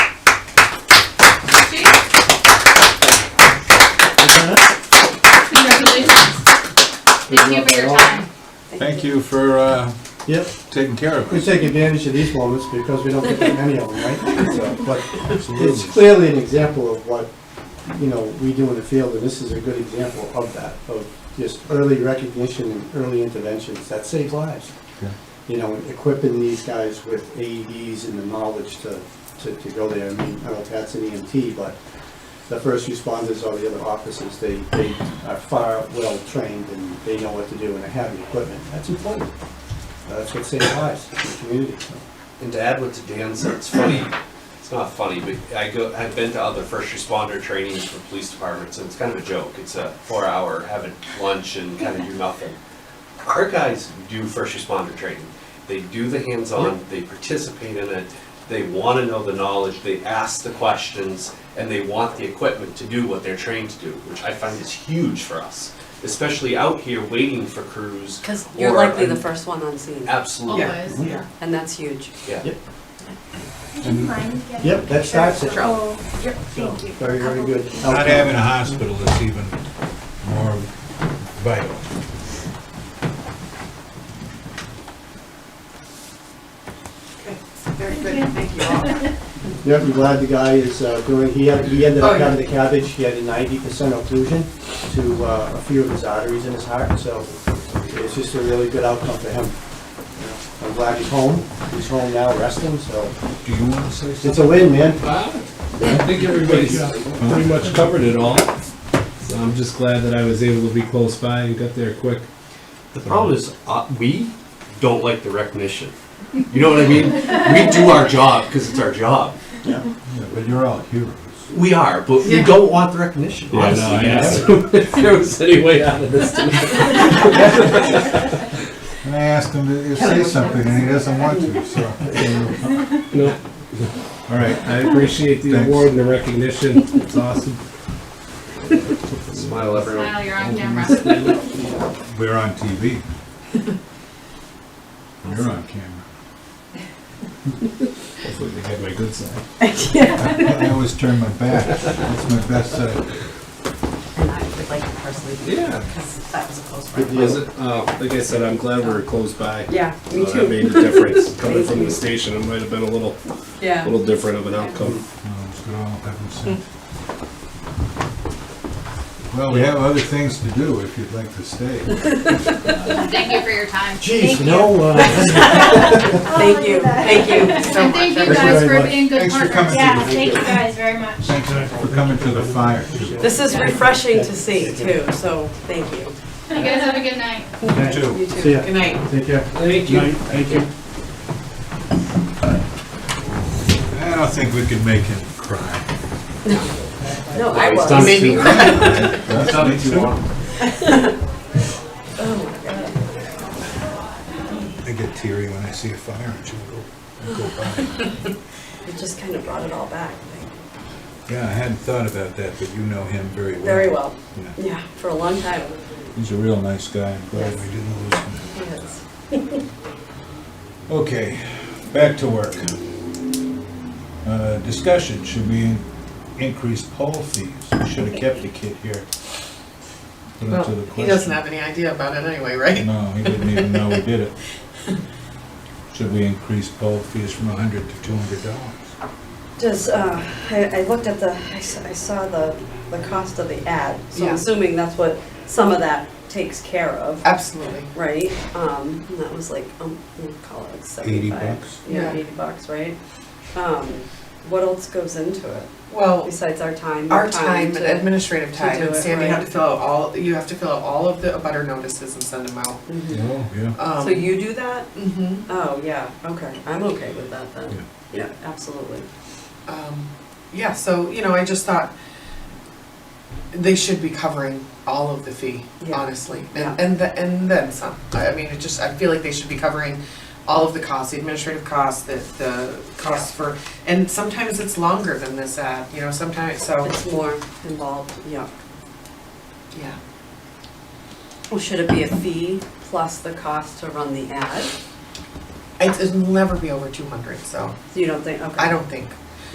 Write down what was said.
thank you for uh, Yep, taking care of we us. take advantage of these moments because we don't get that many of them, right? So, But it's clearly an example of what, you know, we do in the field, and this is a good example of that, of just early recognition and early interventions that save lives. Yeah. You know, equipping these guys with AEDs and the knowledge to, to, to go there. I mean, I don't know if that's an EMT, but the first responders or the other officers, they, they are far well trained and they know what to do and they have the equipment. That's important. That's what saves lives in the community, so. And to add what to Dan said, it's funny, it's not funny, but I go, I've been to other first responder trainings for police departments, and it's kind of a joke. It's a four hour, having lunch and kind of do nothing. Our guys do first responder training. They do the hands-on, they participate in it, they want to know the knowledge, they ask the questions, and they want the equipment to do what they're trained to do, which I find is huge for us, especially out here waiting for crews. Because you're or- likely the first one on scene, Absolutely, Always, yeah. and that's huge. yeah. Yep. Would you mind getting? Yep, that starts it. Oh, yep, thank you. Very, very good. Not having a hospital is even more vital. Okay, very good, thank you all. Yeah, I'm glad the guy is uh, doing, he had- he ended Oh, up yeah. having the cabbage, he had a ninety percent occlusion to uh, a few of his arteries in his heart, so it's just a really good outcome for him. I'm glad he's home, he's home now resting, so Do you want to say it's a win, man. I think everybody's pretty much covered it all. So I'm just glad that I was able to be close by and got there quick. The problem is, uh, we don't like the recognition. You know what I mean? We do our job because it's our job. Yeah, But you're all heroes. We are, but we Yeah. don't want the recognition. Yeah, honestly, Oh, no, I yes. If there was any way out of this tonight. And I asked him to say something, and he doesn't want to, so. No, All right, I appreciate the Thanks. award and the recognition. It's awesome. Smile, everyone. Smile, you're on camera. we're on TV. You're on camera. Hopefully they had my good side. I always turn my back. That's my best side. And I would like to personally be there, Yeah. because that was a close Good one. deal. Was it, uh, like I said, I'm glad we were close by. Yeah, So That made a difference. Coming from the station, it might have been a little, Yeah. little different of an outcome. No, Oh, it's good all heaven sent. Well, we have other things to do if you'd like to stay. Thank you for your time. Jeez, no, uh, Oh, Thank you, thank you so And thank much. you Thank you guys very for much. being good Thanks for coming. partners. Yeah, thank you guys very much. Thanks for coming to the fire. too. This is refreshing to see too, so thank you. You guys have a good night. You too. You See too, ya. good night. take care. Thank you. Thank you. I don't think we can make him cry. No, I It's was. done Maybe. too. That's Done too long. Oh, my God. I get teary when I see a fire and you go, go by. It just kind of brought it all back, like, Yeah, I hadn't thought about that, but you know him very well. very well. Yeah. Yeah, for a long time. He's a real nice guy. I'm glad we Yes. didn't lose him. Yes. Okay, back to work. Uh, Discussion, should we increase poll fees? We should have kept the kid here. Put him Well, to the he doesn't question. have any idea about it anyway, right? No, he didn't even know we did it. Should we increase poll fees from a hundred to two hundred dollars? Does, uh, I, I looked at the, I s- I saw the, the cost of the ad, so Yeah. I'm assuming that's what some of that takes care of. Absolutely. right? Um, and that was like, um, we'll call it Eighty seventy-five. bucks? Yeah, Yeah. eighty bucks, right? Um, what else goes into it Well, besides our time? Oh. our time and to- administrative to time, do and it, Sam, you have right. to fill out all, you have to fill out all of the abutter notices and send them out. Mhm. Oh, yeah. Um, So you do that? mhm. Oh, yeah, okay, I'm okay with that then. Yeah, absolutely. Um, yeah, so, you know, I just thought they should be covering all of the fee, Yeah. honestly. Yeah. And, and, the, and then some. I I mean, it just, I feel like they should be covering all of the costs, the administrative costs, the, the costs for, and sometimes it's longer than this ad, you know, sometimes, so, It's more involved, yeah. yeah. Well, should it be a fee plus the cost to run the ad? It's- It'll never be over two hundred, so You don't think, okay. I don't think,